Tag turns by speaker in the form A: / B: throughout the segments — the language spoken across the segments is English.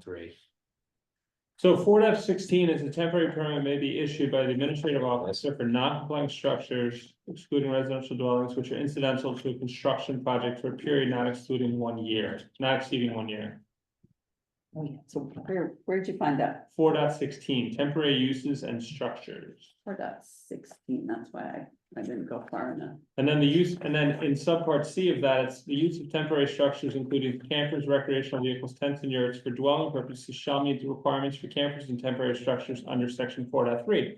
A: three.
B: So four F sixteen is a temporary permit may be issued by the administrative officer for non-compliant structures. Excluding residential dwellings which are incidental to a construction project for a period not excluding one year, not exceeding one year.
C: Oh, yeah, so where, where'd you find that?
B: Four dot sixteen, temporary uses and structures.
C: Four dot sixteen, that's why I, I didn't go far enough.
B: And then the use, and then in subpart C of that, it's the use of temporary structures including campers, recreational vehicles, tents and yurts for dwelling purposes shall meet the requirements for campers and temporary structures under section four point three.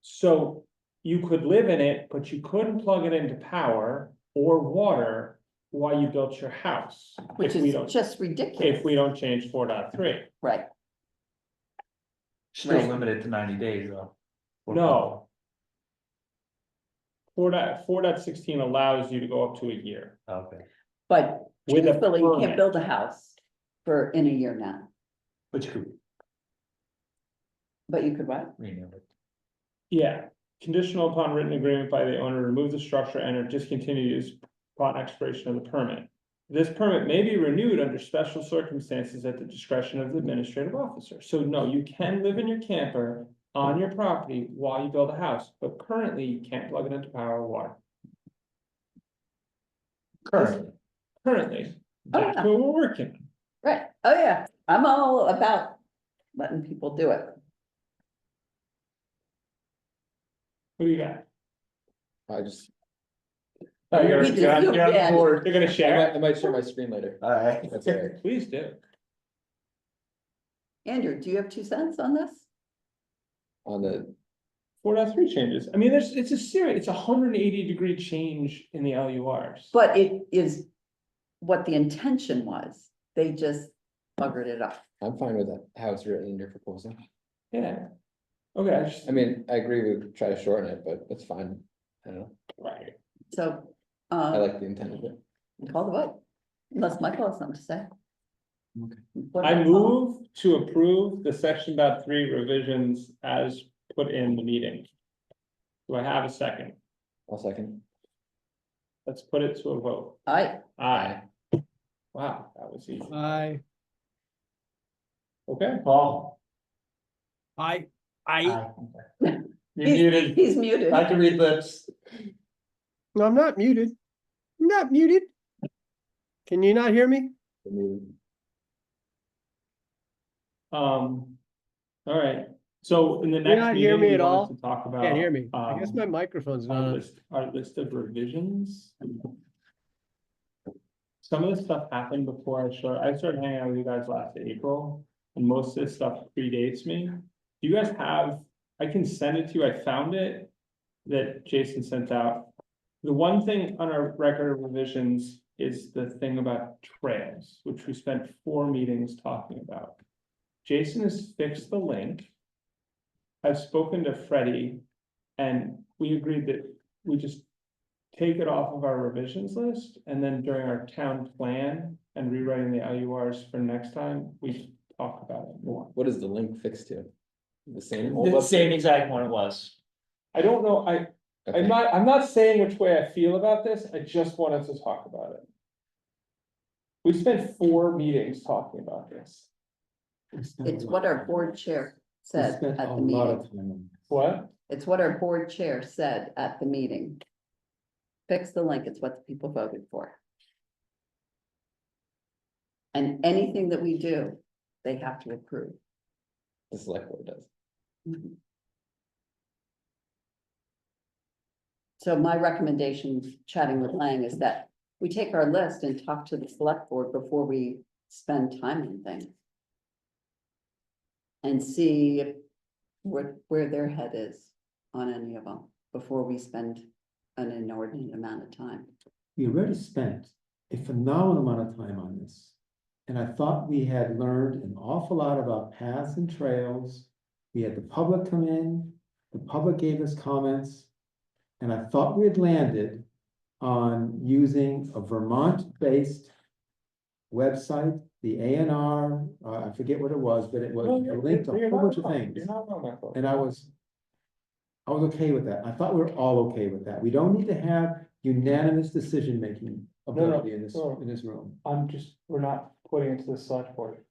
B: So you could live in it, but you couldn't plug it into power or water while you built your house.
C: Which
B: if we
C: is
B: don't-
C: just
B: If we
C: ridiculous,
B: don't change four point three.
C: right?
A: Still
C: Right.
A: limited to ninety days though.
B: no. Four dot, four dot sixteen allows you to go up to a year.
A: Okay,
C: But
B: With a
C: truthfully, you
B: permit.
C: can't build a house for in a year now,
A: but you could
C: but you could what?
A: rename it.
B: Yeah, conditional upon written agreement by the owner, to remove the structure and or discontinue use upon expiration of the permit. This permit may be renewed under special circumstances at the discretion of the administrative officer. So no, you can live in your camper on your property while you build a house, but currently you can't plug it into power or water.
A: Currently,
B: Currently,
C: Oh,
B: that's
C: yeah.
B: what we're working. on.
C: Right, oh yeah, I'm all about letting people do it.
B: What do you got?
D: I just,
B: Oh, you're,
C: We
B: you're on-
C: did-
B: you're on
C: yeah.
B: the board. You're gonna
D: I
B: share?
D: might, I might share my screen later.
A: alright.
D: That's all right.
B: Please do.
C: Andrew, do you have two cents on this?
D: On the,
B: Four dot three changes. I mean, there's, it's a serious, it's a hundred and eighty degree change in the LURs.
C: But it is what the intention was, they just buggered it up.
D: I'm fine with that, how it's written in your proposal.
B: Yeah. Okay, I just,
D: I mean, I agree, we could try to shorten it, but it's fine. I don't know.
B: right,
C: So,
D: I
C: uh,
D: like the intent of it.
C: call the vote, unless Michael has something to say.
D: Okay.
C: What do
B: I
C: call?
B: move to approve the section dot three revisions as put in the meeting. Do I have a second?
D: I'll second.
B: Let's put it to a vote.
C: I,
B: Aye. Wow, that was easy.
E: I,
B: Okay, Paul.
E: I, I,
A: Aye.
B: You're
C: he's,
B: muted.
C: he's muted.
A: I can read lips.
E: no, I'm not muted. I'm Not muted. Can you not hear me?
D: Remove-
B: Um. All right, so in the
E: You're
B: next.
E: not hear
B: meeting,
E: me
B: we
E: at
B: wanted
E: all?
B: to Talk about.
E: Can't hear me. I guess
B: um,
E: my microphone's not
B: Our
E: on.
B: list, our list of revisions. Some of this stuff happened before I started, I started hanging out with you guys last April, and most of this stuff predates me. Do you guys have, I can send it to you, I found it, that Jason sent out. The one thing on our record of revisions is the thing about trails, which we spent four meetings talking about. Jason has fixed the link. I've spoken to Freddie and we agreed that we just take it off of our revisions list, and then during our town plan and rewriting the LURs for next time, we talk about it more.
D: What is the link fixed to? The same? old
A: The
D: website?
A: same exact one it was.
B: I don't know, I, I'm
D: Okay.
B: not, I'm not saying which way I feel about this, I just wanted to talk about it. We spent four meetings talking about this.
C: It's what our board chair said
D: Spent
C: at the
D: a lot
C: meeting.
D: of time on
B: What?
C: It's what our board chair said at the meeting. Fix the link, it's what the people voted for. And anything that we do, they have to approve.
D: The select board does.
C: So my recommendation, chatting with Lang, is that we take our list and talk to the select board before we spend time on things. And see if- where, where their head is on any of them, before we spend an inordinate amount of time.
F: we already spent a phenomenal amount of time on this. And I thought we had learned an awful lot about paths and trails. We had the public come in, the public gave us comments. And I thought we had landed on using a Vermont-based website, the A and R, uh, I forget what it was, but it was it linked to a whole bunch of things.
B: You're not wrong, Michael.
F: And I was. I was okay with that. I thought we were all okay with that. We don't need to have unanimous decision making ability in this,
B: no.
F: in this room.
B: I'm just, we're not putting it to the select board.